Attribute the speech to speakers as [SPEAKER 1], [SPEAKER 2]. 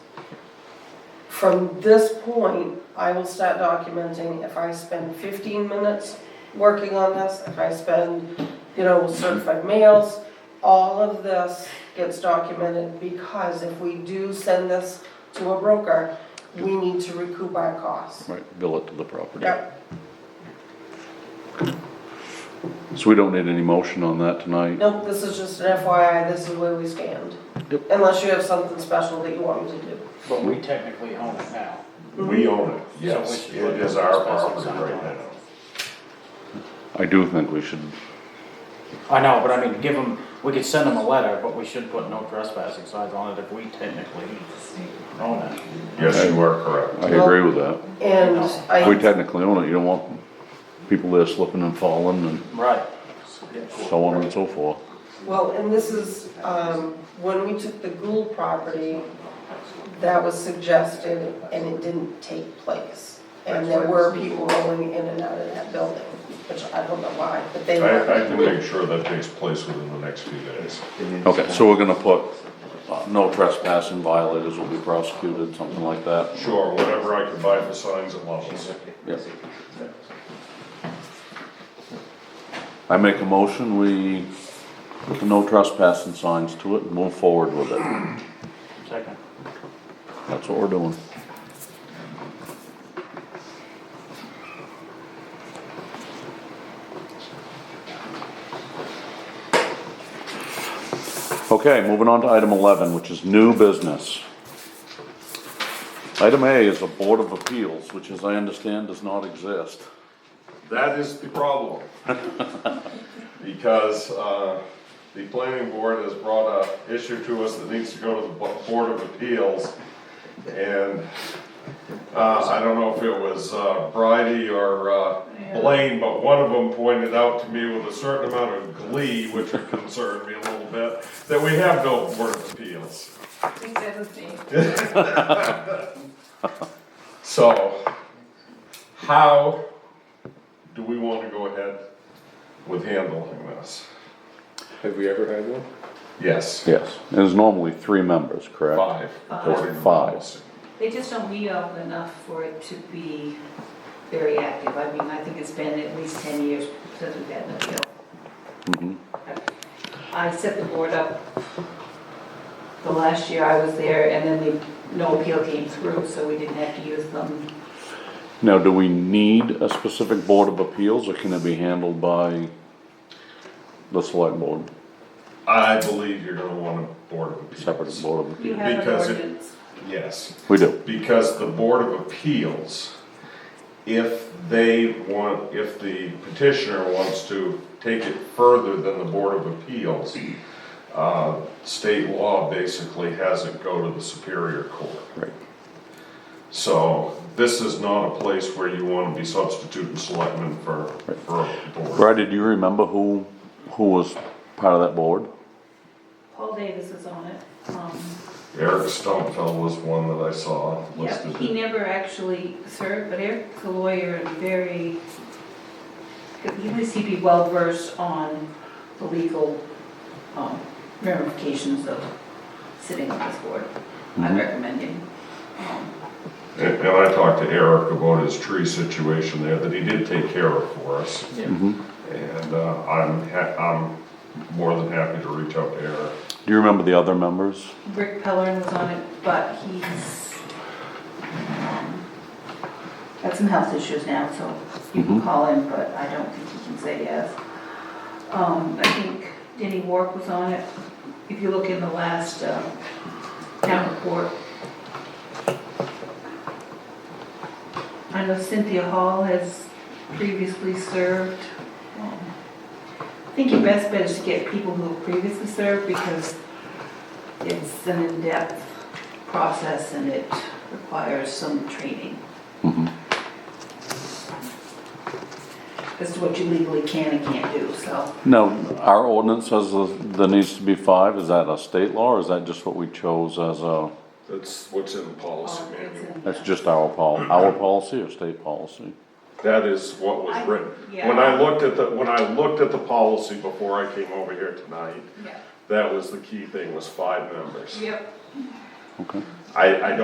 [SPEAKER 1] from this point, I will start documenting if I spend fifteen minutes working on this, if I spend, you know, with certified mails, all of this gets documented because if we do send this to a broker, we need to recoup our costs.
[SPEAKER 2] Right, bill it to the property.
[SPEAKER 1] Yep,
[SPEAKER 2] So we don't need any motion on that tonight?
[SPEAKER 1] nope, this is just an FYI, this is where we stand.
[SPEAKER 2] Yep.
[SPEAKER 1] Unless you have something special that you want me to do.
[SPEAKER 3] But we technically own it now.
[SPEAKER 4] We own it, yes,
[SPEAKER 3] which
[SPEAKER 4] it
[SPEAKER 3] is what
[SPEAKER 4] is
[SPEAKER 3] the
[SPEAKER 4] our
[SPEAKER 3] special
[SPEAKER 4] property
[SPEAKER 3] sign
[SPEAKER 4] right
[SPEAKER 3] on it.
[SPEAKER 4] now.
[SPEAKER 2] I do think we should,
[SPEAKER 3] I know, but I mean, give them, we could send them a letter, but we should put no trespassing signs on it if we technically own it.
[SPEAKER 4] Yes, you are correct.
[SPEAKER 2] I agree with that.
[SPEAKER 1] And
[SPEAKER 2] If
[SPEAKER 1] I,
[SPEAKER 2] we technically own it, you don't want people there slipping and falling and
[SPEAKER 3] Right.
[SPEAKER 2] so on and so forth.
[SPEAKER 1] well, and this is, um, when we took the Gould property, that was suggested and it didn't take place. And there were people rolling in and out of that building, which I don't know why, but they
[SPEAKER 4] I, I
[SPEAKER 1] were.
[SPEAKER 4] can make sure that takes place within the next few days.
[SPEAKER 2] Okay, so we're gonna put, uh, no trespassing violators will be prosecuted, something like that.
[SPEAKER 4] Sure, whatever I can buy for signs at Love's.
[SPEAKER 2] Yep. I make a motion, we put the no trespassing signs to it and move forward with it.
[SPEAKER 3] Second.
[SPEAKER 2] That's what we're doing. Okay, moving on to item eleven, which is new business. Item A is a Board of Appeals, which as I understand does not exist.
[SPEAKER 4] That is the problem. Because, uh, the planning board has brought a issue to us that needs to go to the Bo- Board of Appeals. And, uh, I don't know if it was, uh, Bridie or, uh, Blaine, but one of them pointed out to me with a certain amount of glee, which concerned me a little bit, that we have no Board of Appeals.
[SPEAKER 5] He said his name.
[SPEAKER 4] So, how do we want to go ahead with handling this?
[SPEAKER 6] Have we ever had one?
[SPEAKER 4] Yes,
[SPEAKER 2] Yes, and there's normally three members, correct?
[SPEAKER 4] five, according to the
[SPEAKER 2] Five.
[SPEAKER 4] policy.
[SPEAKER 5] They just don't meet often enough for it to be very active. I mean, I think it's been at least 10 years since we've had an appeal.
[SPEAKER 2] Mhm.
[SPEAKER 5] I set the board up the last year I was there, and then the, no appeal came through, so we didn't have to use them.
[SPEAKER 2] Now, do we need a specific Board of Appeals, or can it be handled by the Select Board,
[SPEAKER 4] I believe you're gonna want a board of appeals.
[SPEAKER 2] separate Board of
[SPEAKER 5] You
[SPEAKER 2] Appeals?
[SPEAKER 5] have an
[SPEAKER 4] Because it-
[SPEAKER 5] ordinance.
[SPEAKER 4] Yes,
[SPEAKER 2] We do,
[SPEAKER 4] because the board of appeals, if they want, if the petitioner wants to take it further than the board of appeals, uh, state law basically has it go to the superior court.
[SPEAKER 2] right.
[SPEAKER 4] So this is not a place where you want to be substituting selectmen for, for a board.
[SPEAKER 2] Brad, do you remember who, who was part of that board?
[SPEAKER 5] Paul Davis is on it. Um,
[SPEAKER 4] Eric Stumpfell was one that I saw
[SPEAKER 5] Yeah,
[SPEAKER 4] listed.
[SPEAKER 5] he never actually served, but Eric's a lawyer and very, he was, he'd be well versed on the legal um, ramifications of sitting on this board. I recommend him. Um,
[SPEAKER 4] And and I talked to Eric about his tree situation there that he did take care of for us.
[SPEAKER 3] Yeah.
[SPEAKER 2] Mm-hmm.
[SPEAKER 4] And uh, I'm, ha- I'm more than happy to reach out to Eric.
[SPEAKER 2] Do you remember the other members?
[SPEAKER 5] Rick Pellerin was on it, but he's um, got some health issues now, so you can call him, but I don't think he can say yes. Um, I think Denny Wark was on it. If you look in the last uh, town report. I know Cynthia Hall has previously served. Um, I think your best bet is to get people who have previously served because it's an in-depth process and it requires some training as to what you legally can and can't do, so.
[SPEAKER 2] No, our ordinance says that there needs to be five, is that a state law, or is that just what we chose as a,
[SPEAKER 4] That's what's in the policy
[SPEAKER 5] um, it's
[SPEAKER 4] manual.
[SPEAKER 5] in-
[SPEAKER 2] that's just our pol, our policy or state policy?
[SPEAKER 4] That is what was
[SPEAKER 5] I-
[SPEAKER 4] written.
[SPEAKER 5] yeah.
[SPEAKER 4] When I looked at the, when I looked at the policy before I came over here tonight,
[SPEAKER 5] Yeah.
[SPEAKER 4] that was the key thing, was five members.
[SPEAKER 5] Yep.
[SPEAKER 2] Okay.
[SPEAKER 4] I, I don't